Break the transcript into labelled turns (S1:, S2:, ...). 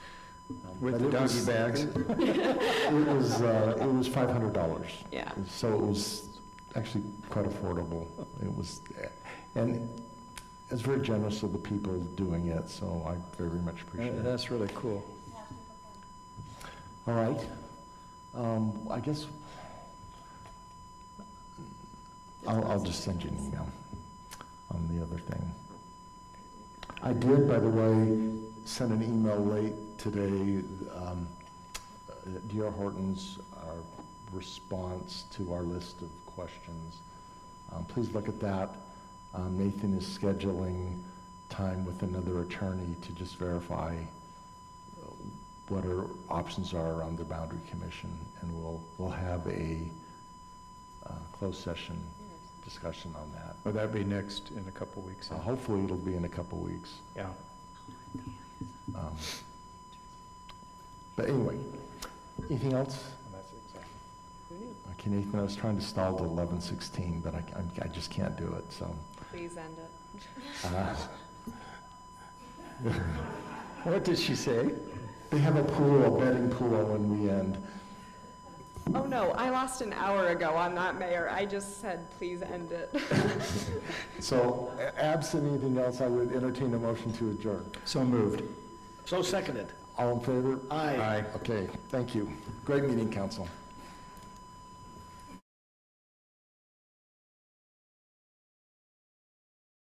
S1: With
S2: Um, but
S1: the
S2: it
S1: doggy
S2: was-
S1: bags.
S2: It was, uh, it was five hundred dollars.
S3: Yeah.
S2: So it was actually quite affordable. It was, and it's very generous of the people doing it, so I very much appreciate
S1: Uh,
S2: it.
S1: That's really cool.
S2: All right. Um, I guess, I'll, I'll just send you an email on the other thing. I did, by the way, send an email late today. um, uh, D.R. Horton's uh, response to our list of questions. Um, Please look at that. Um, Nathan is scheduling time with another attorney to just verify uh, what our options are on the boundary commission, and we'll, we'll have a uh, closed session discussion on that.
S1: Well, that'd be next in a couple weeks.
S2: So hopefully it'll be in a couple weeks.
S1: Yeah.
S2: Um, But anyway, anything else? Okay, Nathan, I was trying to stall to eleven sixteen, but I, I'm- I just can't do it, so.
S3: Please end it.
S2: uh,
S1: What did she say?
S2: They have a pool, a betting pool when we end.
S3: Oh, no, I lost an hour ago. I'm not mayor. I just said, please end it.
S2: So a- absent anything else, I would entertain a motion to adjourn.
S1: So moved.
S4: So seconded.
S2: All in favor?
S4: Aye.
S2: Okay, thank you. Great meeting, council.